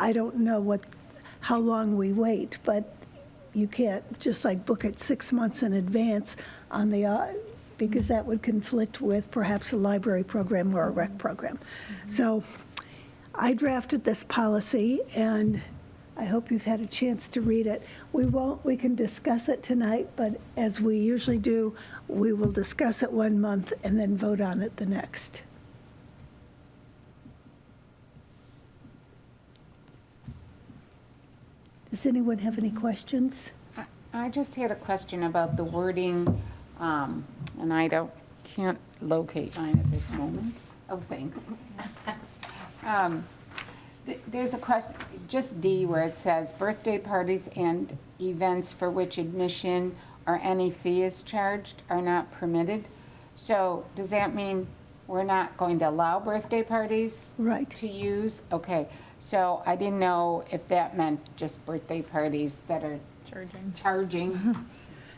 I don't know what, how long we wait, but you can't just like book it six months in advance on the, uh, because that would conflict with perhaps a library program or a rec program. So I drafted this policy, and I hope you've had a chance to read it. We won't, we can discuss it tonight, but as we usually do, we will discuss it one month and then vote on it the next. Does anyone have any questions? I- I just had a question about the wording, um, and I don't, can't locate mine at this moment. Oh, thanks. Um, th- There's a question, just D where it says birthday parties and events for which admission or any fee is charged are not permitted. So does that mean we're not going to allow birthday parties? Right. To use? Okay, so I didn't know if that meant just birthday parties that are. Charging. Charging,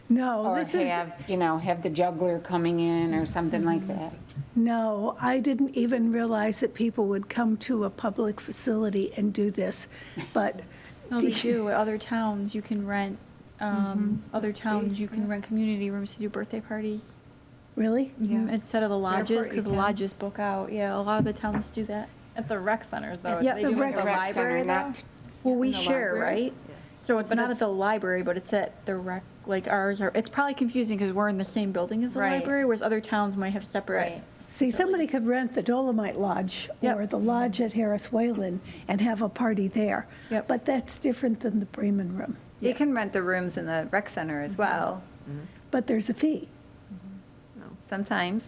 No, or this is, have, you know, have the juggler coming in or something like that. no, I didn't even realize that people would come to a public facility and do this, but. No, do they you- do. Other towns, you can rent, um, other towns, you can rent community rooms to do birthday parties. Really? Mhm, Instead of the Airport, lodges, you because the can. lodges book out. Yeah, a lot of the towns do that. At the rec centers, though. Yeah, they the do rec like the center, library, though. not- Well, we the share, library? right? So it's But not at the it's- library, but it's at the rec, like ours are, it's probably confusing because we're in the same building as the Right. library, whereas other towns might have separate. Right. See, somebody could rent the Dolomite Lodge Yep. or the Lodge at Harris Whalen and have a party there. Yep. But that's different than the Bremen Room. They can rent the rooms in the rec center Mm-hmm. as well, But there's a fee. sometimes.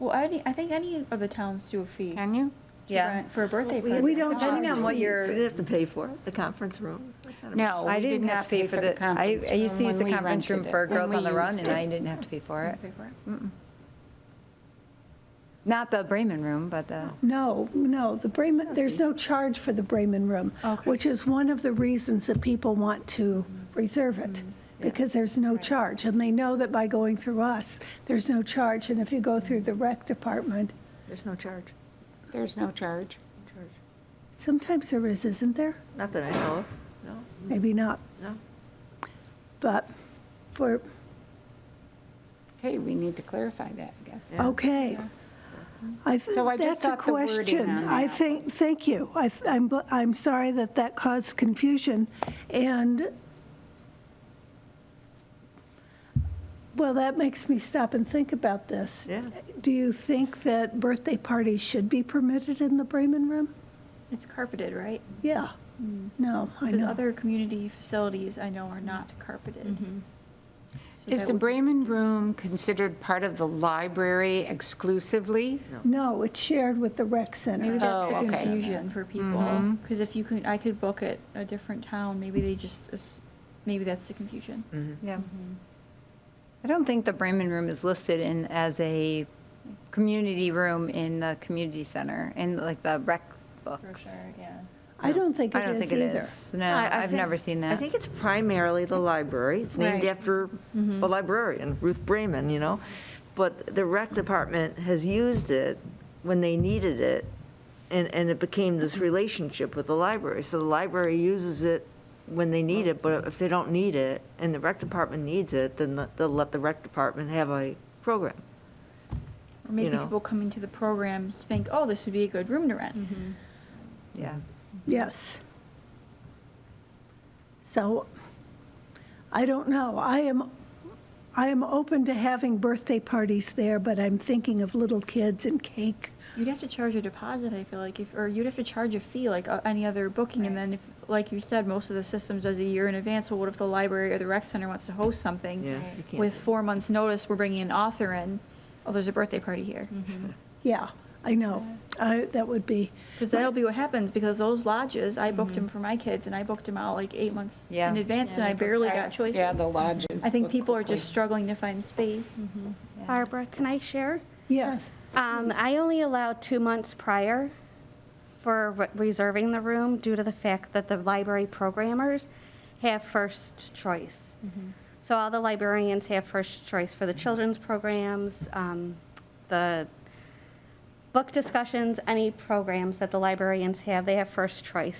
Well, any, I think any of the towns do a fee. Can you? to Yeah. rent For a birthday we- party. we don't Depending charge on what fees. So you're, you have to pay for it, the conference room? No, Oh, I we did didn't have not to pay for the, I, conference I used to room use when the we conference room rented it, for when Girls we on the Run, used and it. I didn't have to pay for it. Pay for it. Not the Bremen room, but the, No, no, the Bremen, there's no charge for the Bremen Room, Okay. which is one of the reasons that people want to reserve it, because there's no charge. And they know that by going through us, there's no charge. And if you go through the rec department, There's no charge, There's no charge. no charge. sometimes there is, isn't there? Not that I know of, no, Maybe not, no. but for, Hey, we need to clarify that, I guess. Yeah. okay. Mm-hmm. I th- So I just that's a thought the wording question. on I that think, was- thank you. I th- I'm, bl- I'm sorry that that caused confusion, and, well, that makes me stop and think about this. Yeah. Do you think that birthday parties should be permitted in the Bremen Room? It's carpeted, right? Yeah. Mm. No, I Because know. other community facilities I know are not carpeted. So Is that the would- Bremen Room considered part of the library exclusively? No, it's shared with the rec center. Maybe that's Oh, the okay. confusion for people, because if you could, I could book at a different town, maybe they just, as- maybe that's the confusion. Mm-hmm. yeah. I don't think the Bremen room is listed in, as a community room in the community center, in like the rec books. yeah. I don't think I it don't is think it either. is. No, I- I I've think- never seen that. I think it's primarily the library. It's named Right. after Mm-hmm. a librarian, Ruth Bremen, you know? But the rec department has used it when they needed it, and, and it became this Mm-hmm. relationship with the library. So the library uses it when they need it, but if they don't need it, and the rec department needs it, then the- they'll let the rec department have a program. Or maybe know. people coming to the programs think, oh, this would be a good room to rent. Yeah. Yes. So, I don't know. I am, I am open to having birthday parties there, but I'm thinking of little kids and cake. You'd have to charge a deposit, I feel like, if, or you'd have to charge a fee like uh, any other booking, and then if, like you said, most of the systems does a year in advance, well, what if the library or the rec center wants to host something? Yeah, you can't With do that. four months' notice, we're bringing an author in, oh, there's a birthday party here. Mm-hmm. Yeah, I know. I, that would be, Because that'll be what happens, because those lodges, I booked Mm-hmm. them for my kids, and I booked them out like eight months Yeah. in advance, and I barely got choices. Yeah, the lodges. I think book people are quickly. just struggling to find space. Mm-hmm. Barbara, can I share? yes. Um, I only allow two months prior for re- reserving the room due to the fact that the library programmers have first choice. So all the librarians have first choice for the children's programs, um, the book discussions, any programs that the librarians have, they have first choice.